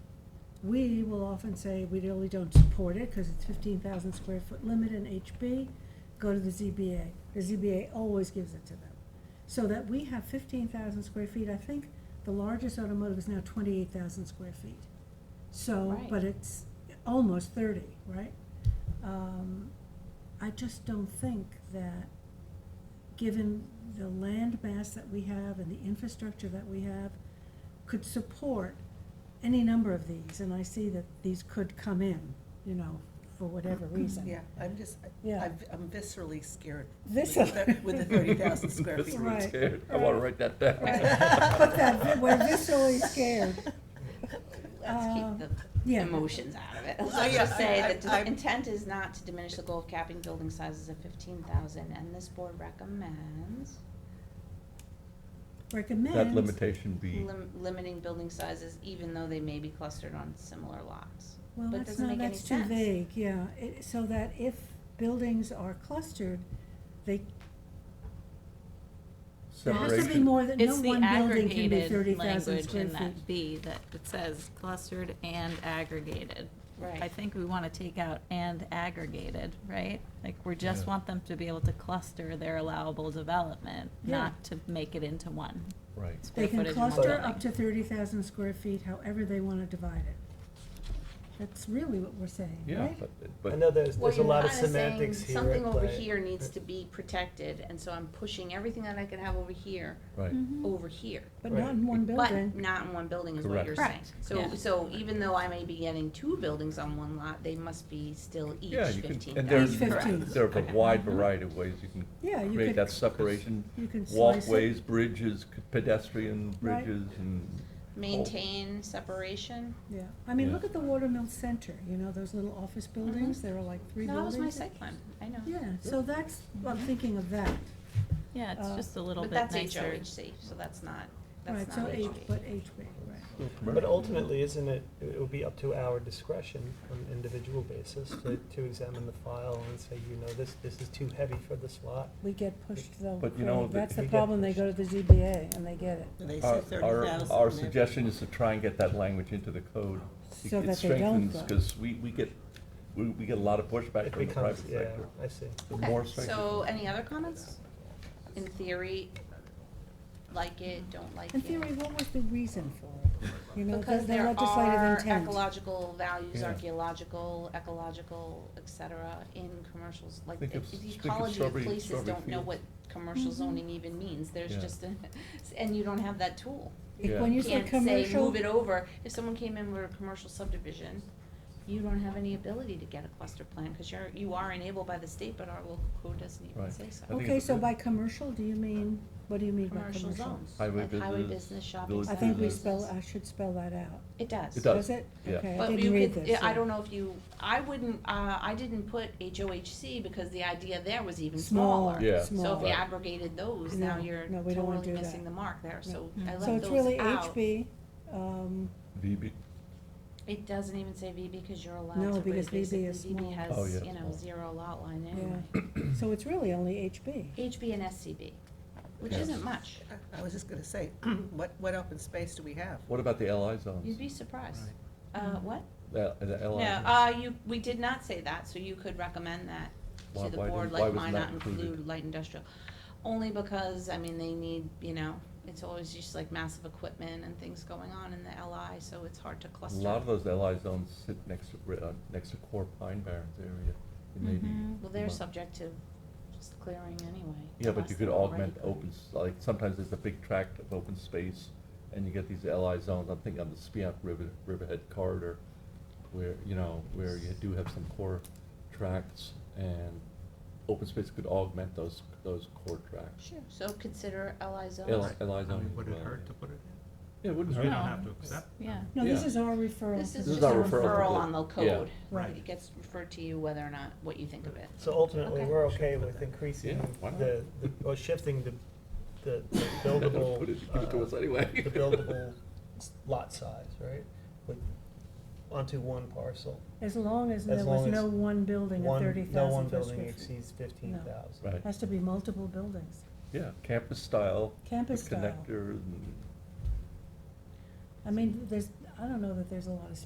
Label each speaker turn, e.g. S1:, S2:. S1: we will often say we really don't support it because it's fifteen thousand square foot limit in HB, go to the ZBA. The ZBA always gives it to them. So that we have fifteen thousand square feet, I think the largest automotive is now twenty-eight thousand square feet. So,
S2: Right.
S1: but it's almost thirty, right? Um, I just don't think that, given the land mass that we have and the infrastructure that we have, could support any number of these, and I see that these could come in, you know, for whatever
S2: Mm-hmm.
S1: reason.
S3: Yeah, I'm just, I-
S1: Yeah.
S3: I've- I'm viscerally scared with
S1: Viscer-
S3: the with the 30,000 square feet.
S1: Viscerally Right.
S4: scared. I want to write that down.
S1: Right. But that, we're viscerally scared.
S2: Let's
S1: Uh,
S2: keep the
S1: yeah.
S2: emotions out of it.
S3: Oh,
S2: Let's
S3: yeah,
S2: just say
S3: I-
S2: that
S3: I-
S2: the
S3: I'm-
S2: intent is not to diminish the goal of capping building sizes of fifteen thousand, and this board recommends
S1: Recommend.
S4: That limitation be,
S2: lim- limiting building sizes even though they may be clustered on similar lots.
S1: Well,
S2: But it
S1: that's
S2: doesn't
S1: not,
S2: make any
S1: that's too
S2: sense.
S1: vague, yeah, it, so that if buildings are clustered, they, there has to be
S4: separation,
S1: more than, no
S5: It's the
S1: one building can be thirty
S5: aggregated
S1: thousand
S5: language
S1: square
S5: in
S1: feet.
S5: that B that it says clustered and aggregated. I
S2: Right.
S5: think we want to take out and aggregated, right? Like, we just
S4: Yeah.
S5: want them to be able to cluster their allowable development,
S1: Yeah.
S5: not to make it into one.
S4: right.
S5: square
S1: They can
S5: footage in one
S1: cluster
S5: building.
S1: up to thirty thousand square feet, however they wanna divide it. That's really what we're saying,
S4: Yeah,
S1: right?
S4: but,
S6: I
S4: but
S6: know there's,
S2: Well,
S6: there's a
S2: you're
S6: lot of
S2: kinda saying
S6: semantics here
S2: Something
S6: at
S2: over
S6: play.
S2: here needs to be protected, and so I'm pushing everything that I can have over here,
S4: right.
S1: Mm-hmm.
S2: over here.
S1: But not
S6: Right.
S1: in one
S2: But
S1: building,
S2: not in one building is what
S4: Correct.
S2: you're saying.
S5: Right,
S2: So,
S5: yeah.
S2: so even though I may be getting two buildings on one lot, they must be still each
S4: Yeah, you
S2: fifteen
S4: can,
S2: thousand.
S4: and there's,
S1: Each 15.
S4: there's a wide variety of ways you
S1: Yeah,
S4: can
S1: you
S4: create
S1: could-
S4: that separation.
S1: you can slice it.
S4: Walkways, bridges, c- pedestrian
S1: Right.
S4: bridges and.
S2: Maintain separation.
S1: yeah, I mean,
S4: Yeah.
S1: look at the Watermill Center, you know, those little office buildings, there are like three
S2: Mm-hmm. That
S1: buildings.
S2: was my site plan, I know.
S1: Yeah, so that's, I'm thinking of that,
S5: Yeah, it's
S1: Uh,
S5: just a little
S2: But
S5: bit
S2: that's
S5: nicer.
S2: HOHC, so that's not, that's
S1: right, so
S2: not
S1: H,
S2: HOHC.
S1: but HB, right.
S6: But ultimately, isn't it, it will be up to our discretion on an individual basis to, to examine the file and say, you know, this, this is too heavy for this lot.
S1: We get pushed though.
S4: But you know,
S1: Craig.
S4: the-
S1: That's
S6: We
S1: the
S6: get
S1: problem, they go to the ZBA and they get it,
S3: They
S4: Uh, Our-
S3: say
S4: Our,
S3: 30,000.
S4: our
S3: they-
S4: suggestion is to try and get that language into the code. It-
S1: So that they don't
S4: It strengthens,
S1: go.
S4: because we, we get, we, we get a lot of pushback
S6: It
S4: from the private
S6: becomes, yeah,
S4: sector.
S6: I see.
S4: The
S2: Okay,
S4: more strength it
S2: So,
S4: comes-
S2: any other comments? In theory, like it, don't like it?
S1: In theory, what was the reason for it? You know, the
S2: Because
S1: the
S2: there
S1: legislative
S2: are
S1: intent.
S2: ecological values,
S4: Yeah.
S2: archaeological, ecological, et cetera, in commercials, like,
S4: Think
S2: the
S4: of-
S2: the
S4: think of
S2: ecology of
S4: strawberry-
S2: places
S4: strawberry
S2: don't know
S4: field.
S2: what commercial
S5: Mhm.
S1: Mm-hmm.
S2: zoning even means, there's
S4: Yeah.
S2: just, a- and you don't have that tool.
S1: If-
S4: Yeah.
S1: When you
S2: You
S1: say
S2: can't say,
S1: commercial,
S2: move it over, if someone came in with a commercial subdivision, you don't have any ability to get a cluster plan, cause you're, you are enabled by the state, but our local code doesn't even
S4: Right.
S2: say so.
S4: I think
S1: okay,
S4: it's a
S1: so
S4: good-
S1: by commercial, do you mean, what do you mean by
S2: Commercial
S1: commercial?
S2: zones,
S4: Highway
S2: like highway
S4: business,
S2: business, shopping
S4: village
S1: I
S2: centers.
S1: think we
S4: business.
S1: spell, I should spell that out.
S2: It does.
S4: It does,
S1: Does it?
S4: yeah.
S1: Okay, I
S2: But
S1: didn't
S2: you
S1: read
S2: could,
S1: this.
S2: I don't know if you, I wouldn't, uh, I didn't put HOHC because the idea there was even
S1: Smaller,
S2: smaller.
S4: Yeah.
S2: So if
S1: smaller.
S2: we aggregated those, now
S1: No,
S2: you're
S1: no, we don't wanna
S2: totally
S1: do that.
S2: missing the mark there, so
S1: So
S2: I left
S1: it's
S2: those
S1: really
S2: out.
S1: HB, um,
S4: VB,
S2: It doesn't even say VB because you're
S1: No,
S2: allowed to
S1: because
S2: raise basic,
S1: VB is small.
S2: VB
S4: Oh,
S2: has,
S4: yeah,
S2: you know,
S4: small.
S2: zero lot line anyway.
S1: yeah, so it's really only HB.
S2: HB and SCB, which
S4: Yeah.
S2: isn't much,
S3: I- I was just gonna say, what, what open space do we have?
S4: what about the LI zones?
S2: you'd be surprised. Uh, what?
S4: The, the
S2: No,
S4: LI.
S2: uh, you, we did not say that, so you could recommend that
S4: Why-
S2: to the
S4: why
S2: board,
S4: didn't- why
S2: like
S4: was
S2: why
S4: it not
S2: not
S4: included?
S2: include light industrial? Only because, I mean, they need, you know, it's always just like massive equipment and things going on in the LI, so it's hard to
S4: A
S2: cluster.
S4: lot of those LI zones sit next to, ri- uh, next to core Pine Barrens area. It may be-
S2: Mm-hmm. Well, they're
S4: Well-
S2: subject to just clearing anyway.
S4: Yeah, but
S2: unless
S4: you could
S2: they're already
S4: augment
S2: cleared.
S4: open, s- like, sometimes there's a big tract of open space, and you get these LI zones, I'm thinking on the Spiant River, Riverhead corridor, where, you know, where you do have some core tracts, and open space could augment those, those core tracts.
S2: Sure, so consider LI
S4: LI
S2: zones.
S4: zones. LI
S7: I mean,
S4: zones
S7: would
S4: as
S7: it
S4: well,
S7: hurt
S4: yeah.
S7: to put it
S4: Yeah, it
S7: in?
S4: wouldn't
S7: We
S4: hurt.
S7: don't
S5: No.
S7: have to accept.
S5: Yeah.
S1: No, this
S4: Yeah.
S1: is our referral.
S2: This is
S4: uh, This is
S2: just a
S4: our referral
S2: referral
S4: code.
S2: on the
S4: Yeah.
S2: code.
S7: Right.
S2: It gets referred to you whether or not, what you think of it.
S6: So ultimately,
S2: Okay.
S6: we're okay with increasing
S4: Yeah, why not?
S6: the, the- or shifting the, the the
S4: Yeah, don't
S6: buildable.
S4: put it- Give it to
S6: uh,
S4: us anyway.
S6: the buildable s- lot size, right? With, onto one parcel.
S1: As long as there
S6: As
S1: was
S6: long
S1: no
S6: as
S1: one building at
S6: One-
S1: thirty
S6: No one
S1: thousand per square
S6: building
S1: feet.
S6: exceeds fifteen thousand.
S4: Right,
S1: Has to be multiple buildings,
S4: yeah, campus style.
S1: campus
S4: with
S1: style.
S4: Connectors and.
S1: I mean, there's, I don't know that there's a lot of